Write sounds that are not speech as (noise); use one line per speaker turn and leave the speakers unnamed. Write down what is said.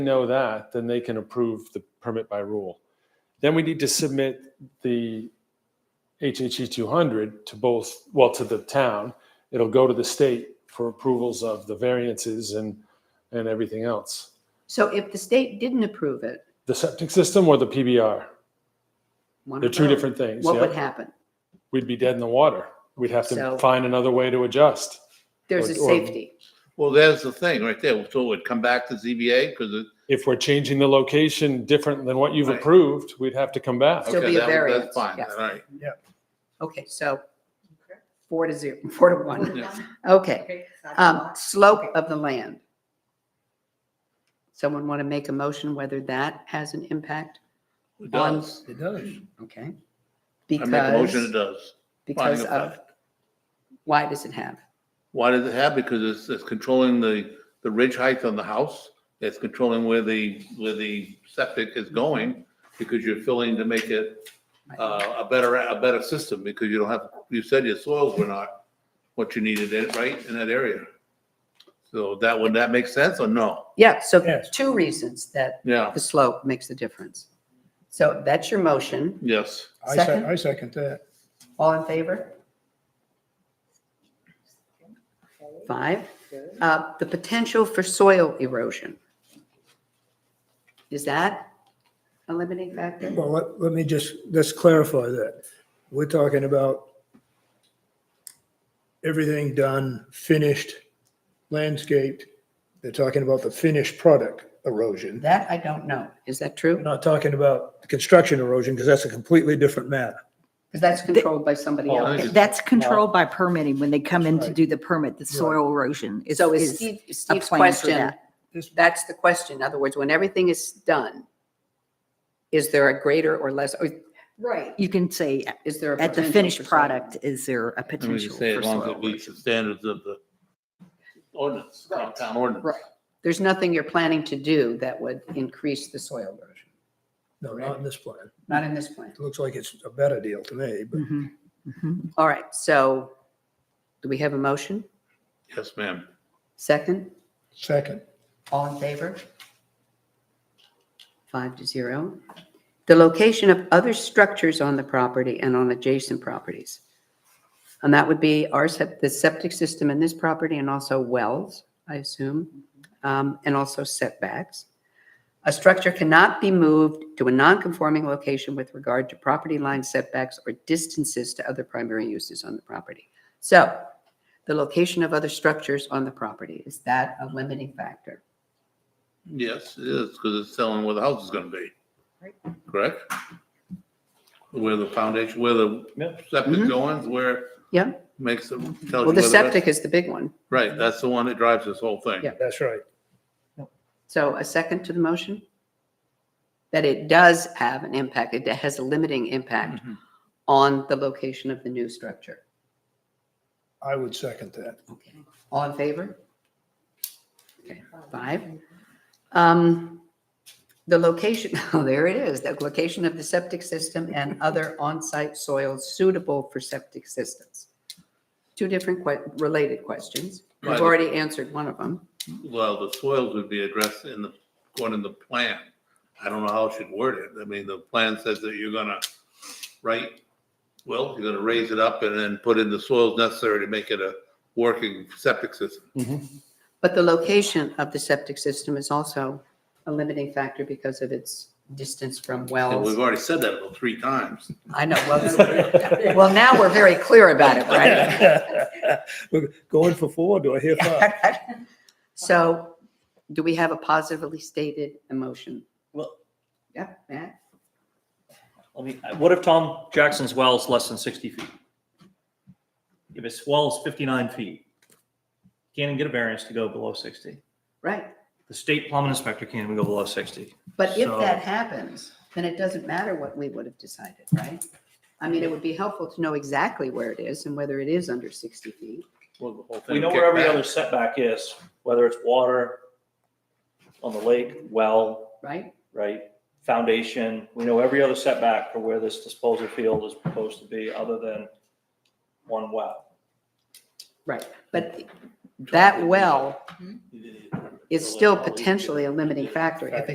know that, then they can approve the permit by rule. Then we need to submit the HHE 200 to both, well, to the town. It'll go to the state for approvals of the variances and, and everything else.
So if the state didn't approve it,
The septic system or the PBR,
one
they're
of
two
those,
different things.
What
yeah.
would happen?
We'd be dead in the water. We'd have to
So-
find another way to adjust.
There's a
Or- or-
safety.
Well, there's the thing right there. So it would come back to ZBA because it.
If we're changing the location different than what you've
Right.
approved, we'd have to come back.
Still
okay,
be a
that-
variance,
That's fine,
yes.
all right.
Okay, so four to zero, (laughs) four to one.
Yeah.
Okay.
Okay.
Um, slope of the land. Someone want to make a motion whether that has an impact?
It
On-
does.
It does.
Okay.
I make a motion, it
Because,
does. Finding
because
of
of,
fact.
why does it have?
Why does it have? Because it's, it's controlling the, the ridge height on the house. It's controlling where the, where the septic is going because you're filling to make it uh, a better, a better system because you don't have, you said your soils were not what you needed in, right, in that area. So that, would that make sense or no?
Yeah, so
Yes.
two reasons that
Yeah,
the slope makes the difference. So that's your motion.
yes.
I
Second?
second, I second that.
All in favor? Five. Uh, the potential for soil erosion. Is that a limiting factor?
Well, let, let me just, let's clarify that. We're talking about everything done, finished, landscaped. They're talking about the finished product erosion.
That I don't know. Is that
We're
true?
not talking about the construction erosion because that's a completely different matter.
Because that's controlled by somebody
Well, I
else.
think
That's controlled by permitting. When they come in to
Right.
do the permit, the soil erosion is,
So is
is
Steve,
a
Steve's
plan for
question,
that.
This-
that's the question. In other words, when everything is done, is there a greater or less, or
Right.
You can say
is there? a
at the
potential for
finished
soil?
product, is there a
Let me
potential
just say,
for
as long as
soil
it meets
erosion?
the standards of the ordinance,
Right.
town ordinance.
Right. There's nothing you're planning to do that would increase the soil erosion,
No, not in this plan.
not in this plan.
It looks like it's a better deal to me, but
Mhm, mhm.
All right, so do we have a motion?
Yes, ma'am.
Second?
second,
All in favor? Five to zero. The location of other structures on the property and on adjacent properties. And that would be our, sep- the septic system in this property and also wells, I assume, um, and also setbacks. A structure cannot be moved to a non-conforming location with regard to property line setbacks or distances to other primary uses on the property. So the location of other structures on the property, is that a limiting factor?
Yes, it is, because it's telling where the house is gonna be. Correct? Where the foundation, where the
Yep.
septic going, where.
Yeah.
Makes them. tells
Mm-hmm. Well,
you
the
where
septic is the big one.
Right, that's the one that drives this whole thing.
Yeah.
that's right.
So a second to the motion? That it does have an impact, it has a limiting impact
Mhm.
on the location of the new structure.
I would second that.
Okay. All in favor? Okay, five. Um, The location, (laughs) oh, there it is, the location of the septic system and other on-site soils suitable for septic systems. Two different que- related questions. We've
Right.
already answered one of them.
Well, the soils would be addressed in the, going in the plan. I don't know how I should word it. I mean, the plan says that you're gonna, right? Well, you're gonna raise it up and then put in the soils necessary to make it a working septic system.
But the location of the septic system is also a limiting factor because of its distance from
And we've
wells.
already said that about three times.
I know, well, well, now we're very clear about it, right?
(laughs) We're Going for four, do I hear five?
So do we have a positively stated emotion?
Well-
Yeah, Matt?
I mean, uh, what if Tom Jackson's well is less than sixty feet? If his well is fifty-nine feet, can't even get a variance to go below sixty.
right.
The state plumbing inspector can't even go below sixty.
But if
So-
that happens, then it doesn't matter what we would have decided, right? I mean, it would be helpful to know exactly where it is and whether it is under 60 feet.
We know where every other setback is, whether it's water, on the lake, well,
right?
right? Foundation, we know every other setback for where this disposal field is proposed to be, other than one well.
Right. But that well is still potentially a limiting factor. If